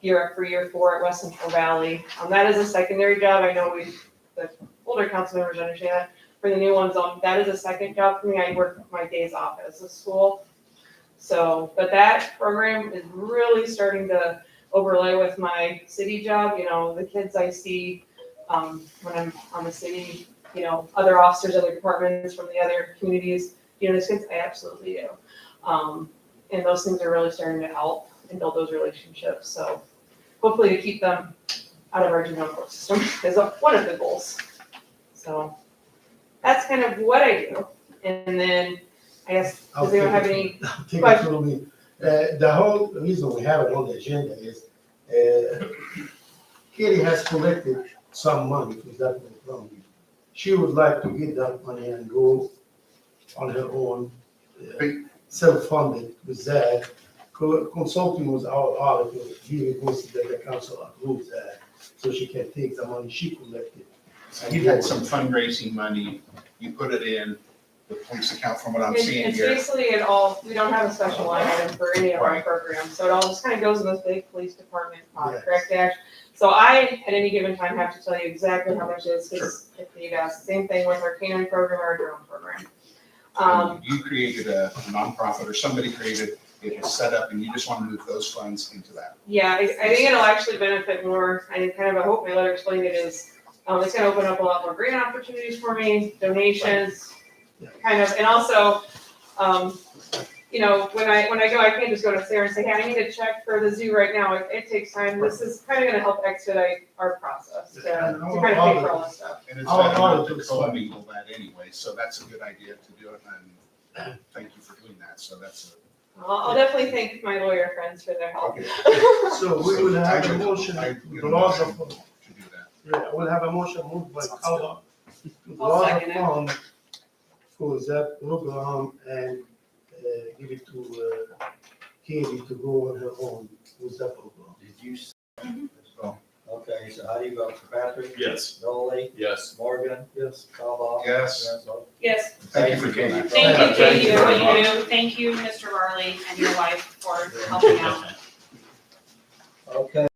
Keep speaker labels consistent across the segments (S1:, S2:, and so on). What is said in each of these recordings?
S1: year after year for at West Central Valley. Um, that is a secondary job. I know we, the older council members understand that. For the new ones, um, that is a second job for me. I work my days off as a school. So, but that program is really starting to overlay with my city job, you know, the kids I see, um, when I'm on the city, you know, other officers, other departments from the other communities, you know, those kids, I absolutely do. Um, and those things are really starting to help and build those relationships, so hopefully to keep them out of our juvenile court system is one of the goals. So that's kind of what I do. And then I guess,
S2: Oh,
S1: does anyone have any
S2: I think it's gonna be, uh, the whole reason we have it on the agenda is, uh, Katie has collected some money, if that was wrong. She would like to get that money and go on her own, uh, self-funded with that. Co- Consulting with our auditor, he requested that the council approve that, so she can take the money she collected.
S3: So You had some fundraising money, you put it in the police account from what I'm
S1: It's-
S3: seeing
S1: It's
S3: here.
S1: basically it all, we don't have a special line item for any of our programs, so it all just kind of goes in this big police department, uh,
S2: Yes.
S1: correct Ash? So I, at any given time, have to tell you exactly how much it is, because if you ask, same thing with our canine program or our drone program. Um,
S3: And You created a nonprofit or somebody created, it was set up and you just want to move those funds into that.
S1: yeah, I, I think it'll actually benefit more, I kind of, I hope my letter explained it is, um, it's gonna open up a lot more grant opportunities for me, donations,
S2: Yeah.
S1: kind of, and also, um, you know, when I, when I go, I can't just go to Sarah and say, hey, I need a check for the zoo right now, it, it takes time, this is kind of gonna help expedite our process to, to
S2: Yeah, I
S1: kind
S2: know
S1: of
S2: all
S1: pay
S2: of
S1: for all
S2: it.
S1: this stuff.
S3: And it's
S2: Oh,
S3: not
S2: oh,
S3: enough to
S2: it's fine.
S3: commingle that anyway, so that's a good idea to do it and thank you for doing that, so that's
S1: I'll, I'll definitely thank my lawyer friends for their
S3: a.
S1: help.
S2: So we will have
S3: I
S2: a
S3: would-
S2: motion,
S3: I would-
S2: laws of,
S3: To do that.
S2: yeah, we'll have a motion moved by Calvo.
S4: I'll
S2: lot
S4: second
S2: of
S4: it.
S2: fun for that program and uh, give it to uh, Katie to go on her own with that program.
S5: Did you? s- Oh, Okay, so how do you vote for Patrick?
S6: Yes.
S5: Dolly?
S6: Yes.
S5: Morgan? Yes. Calvo?
S3: Yes.
S5: Renzo?
S4: Yes,
S3: Thank you for doing that.
S4: thank you,
S6: Thank
S4: Katie,
S6: you
S4: for
S6: very
S4: what you do. Thank you, Mr. Varley, and your wife for helping out.
S5: Okay,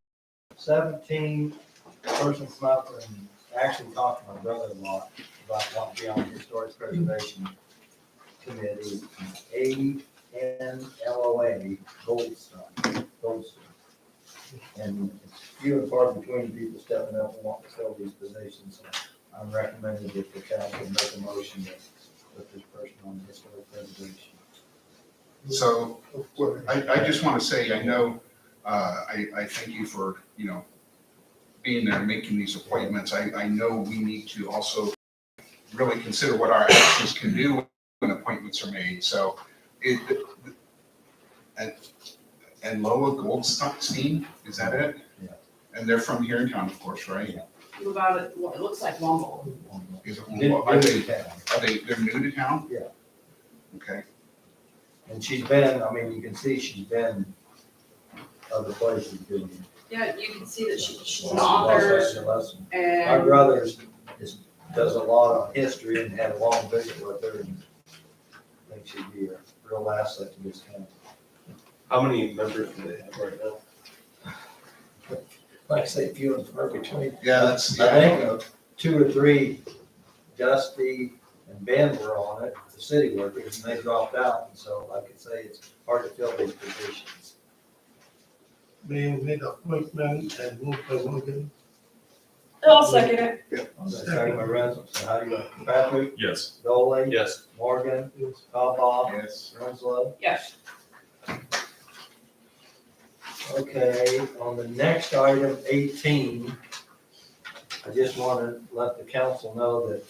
S5: seventeen, persons come up and actually talked to my brother-in-law about wanting to be on the historic preservation committee, A N L O A, Goldstone, Goldstone. And it's few and far between people stepping up and wanting to fill these positions. So I'm recommending that the council make a motion to put this person on the historic preservation.
S3: So I, I just want to say, I know, uh, I, I thank you for, you know, being there, making these appointments. I, I know we need to also really consider what our actions can do when appointments are made, so it, and, and Loa Goldstein, is that it?
S5: Yeah.
S3: And they're from here in town, of course, right?
S4: Move out of, well, it looks like Wumble.
S3: Is it-
S5: Didn't
S3: Are
S5: really
S3: they,
S5: count.
S3: are they, they're new to town?
S5: Yeah.
S3: Okay,
S5: And she's been, I mean, you can see she's been other places doing. it.
S4: Yeah, you can see that she, she's
S5: She
S4: an
S5: loves
S4: author
S5: us, she loves us. My
S4: and
S5: brother is, is- does a lot of history and had a long visit with her and I think she'd be a real asset to this county.
S6: How many members do they have right now?
S5: Like I say, few and far between.
S3: yeah, that's,
S5: I
S3: yeah,
S5: think of two or three, Dusty and Ben were on it, the city workers, and they dropped out. And so like I say, it's hard to fill these positions.
S2: Mayor made appointment and moved by Morgan.
S4: I'll second it.
S5: Second by Renzo, so how do you, Patrick,
S6: Yes.
S5: Dolly?
S6: Yes.
S5: Morgan,
S2: Yes.
S5: Harbaugh,
S3: yes.
S5: Winslow.
S4: Yes.
S5: Okay, on the next item, eighteen, I just want to let the council know that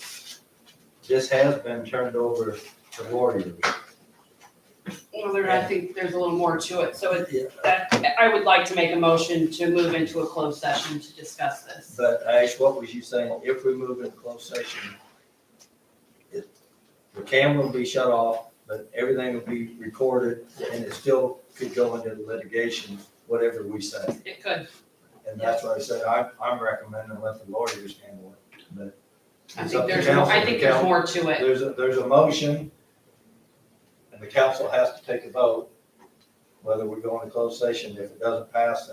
S5: this has been turned over to Warriors.
S4: Well, there, I think there's a little more to it, so it, that, I would like to make a motion to move into a closed session to discuss this.
S5: But Ash, what was you saying? If we move into closed session, it, the camera will be shut off, but everything will be recorded and it still could go into litigation, whatever we say.
S4: It could,
S5: And that's why I said I, I'm recommending let the lawyers handle it, but.
S4: I
S5: it's
S4: think
S5: up to
S4: there's, more- I
S5: council.
S4: think there's
S5: The
S4: more to
S5: coun-
S4: it.
S5: There's a, there's a motion, and the council has to take a vote whether we go into closed session. If it doesn't pass, then